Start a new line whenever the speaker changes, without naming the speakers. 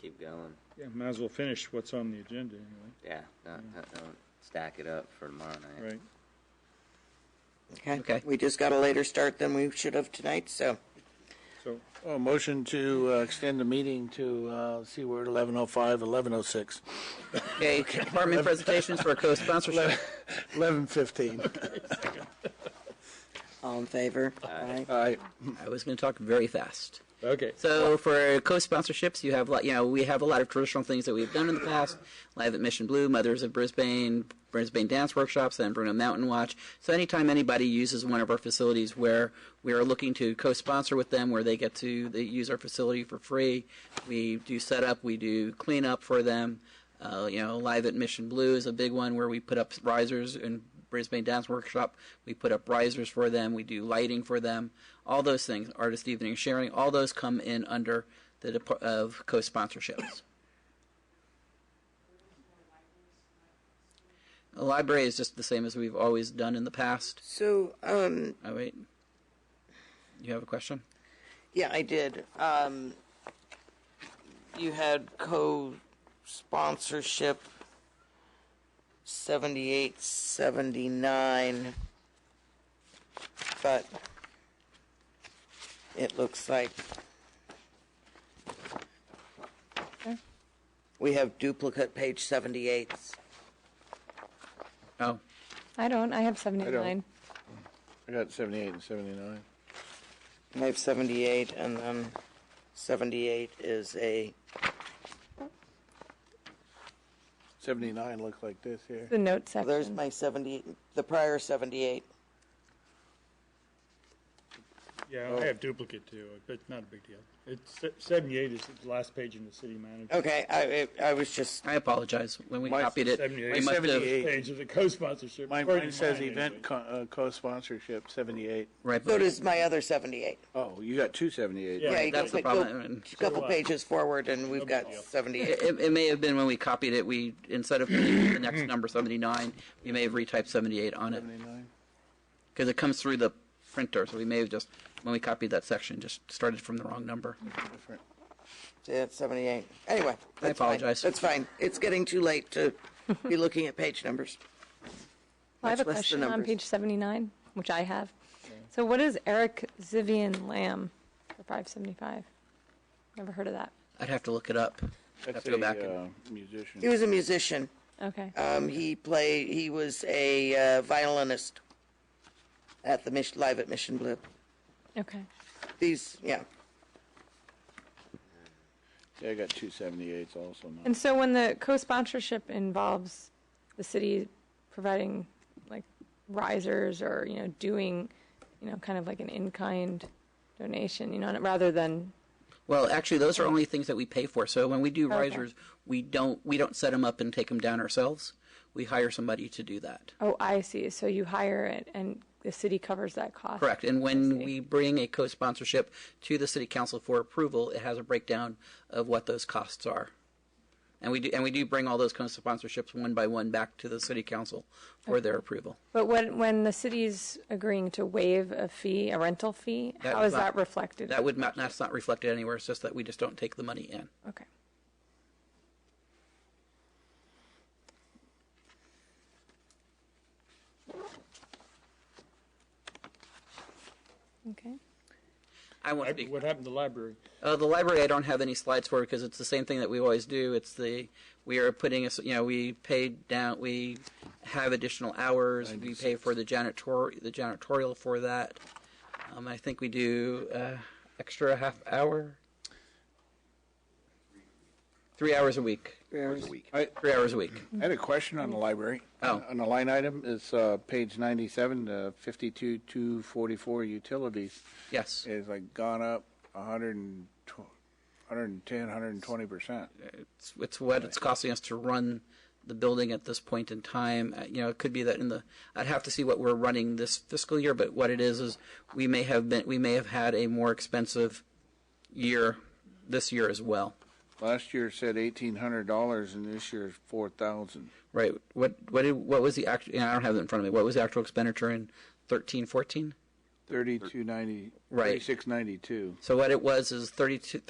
keep going.
Yeah, might as well finish what's on the agenda anyway,
Yeah, don't, don't, don't stack it up for tomorrow night.
right?
Okay, we just got a later start than we should have tonight, so.
So,
Well, Oh, motion to uh, extend the meeting to, uh, see, we're at 11:05, 11:06,
Okay, department presentations for co-sponsorship.
11:15.
All in favor? Aye.
All right.
I was going to talk very fast.
okay.
So for co-sponsorships, you have a lot, you know, we have a lot of traditional things that we've done in the past. Live at Mission Blue, Mothers of Brisbane, Brisbane Dance Workshops, and Bruno Mountain Watch. So anytime anybody uses one of our facilities where we are looking to co-sponsor with them, where they get to they use our facility for free, we do setup, we do cleanup for them. Uh, you know, Live at Mission Blue is a big one where we put up risers and Brisbane Dance Workshop. We put up risers for them. We do lighting for them. All those things, artist evening sharing, all those come in under the dep- of co-sponsorships. A library is just the same as we've always done in the past.
So, um,
Oh wait, you have a question?
yeah, I did. Um, you had co-sponsorship seventy-eight, seventy-nine, but it looks like we have duplicate page seventy-eights.
Oh,
I don't. I have 79.
I got 78 and 79.
I have 78, and then 78 is a,
79 looks like this here.
The note section.
there's my 70, the prior 78.
Yeah, I have duplicate too, but not a big deal. It's se- seventy-eight is the last page in the city manager.
Okay, I, I I was just,
I apologize. When we
Mine's
copied it,
seventy-eight.
we must have
78.
Page of the co-sponsorship.
Mine
according
mine
to
says
mine,
event
anyway.
co- uh, co-sponsorship, 78.
right.
so does my other 78.
Oh, you got two 78.
Yeah,
Yeah,
you
that's
go-
the
go
problem.
a Couple
So, uh,
pages forward, and we've got
deal.
78.
It, it may have been when we copied it, we, instead of putting the next number 79, we may have retyped 78 on it.
79.
Because it comes through the printer, so we may have just, when we copied that section, just started from the wrong number.
Different.
Yeah, it's 78. Anyway, that's fine.
apologize.
That's fine. It's getting too late to be looking at page numbers.
I
much less
have a
the
question on
numbers.
page 79, which I have. So, what is Eric Zivian Lamb for 575? Never heard of that.
I'd have to look it up. I'd have
That's
to go
a
back. and-
uh,
He
musician.
was a musician.
Okay.
Um, He played, he was a uh, violinist at the, Mich- live at Mission Blue.
okay.
These, yeah.
Yeah, I got two 78s also. now.
And so, when the co sponsorship involves the city providing like risers or, you know, doing, you know, kind of like an in kind donation, you know, rather than,
Well, actually, those are only things that we pay for. So when we do
Okay.
risers, we don't, we don't set them up and take them down ourselves. We hire somebody to do that.
oh, I see. So, you hire it and the city covers that cost.
Correct. And when we bring a co-sponsorship to the city council for approval, it has a breakdown of what those costs are. And we do, and we do bring all those co-sponsorships one by one back to the city council for their approval.
But when, when the city's agreeing to waive a fee, a rental fee,
That
how
is
is
not-
that reflected?
That would not, that's not reflected anywhere. It's just that we just don't take the money in.
Okay. Okay.
I won't
Lib-
speak.
What happened to the library?
Uh, the library, I don't have any slides for because it's the same thing that we always do. It's the we are putting us, you know, we pay down, we have additional hours. We pay for the janitor, the janitorial for that. Um, I think we do uh, extra half hour, three hours a week,
I
three hours a week.
I had a question on the library.
Oh.
On the line item, it's uh, page uh, 97 to 52, 244 utilities.
Yes,
It's like gone up 110, 120%.
it's, it's what it's costing us to run the building at this point in time. Uh, You know, it could be that in the I'd have to see what we're running this fiscal year, but what it is is we may have been we may have had a more expensive year this year as well.
Last year said $1,800 and this year's 4,000.
Right. What what did, what was the actual? I don't have it in front of me. What was the actual expenditure in thirteen fourteen?
3290,
Right.
3692.
So what it was is 32,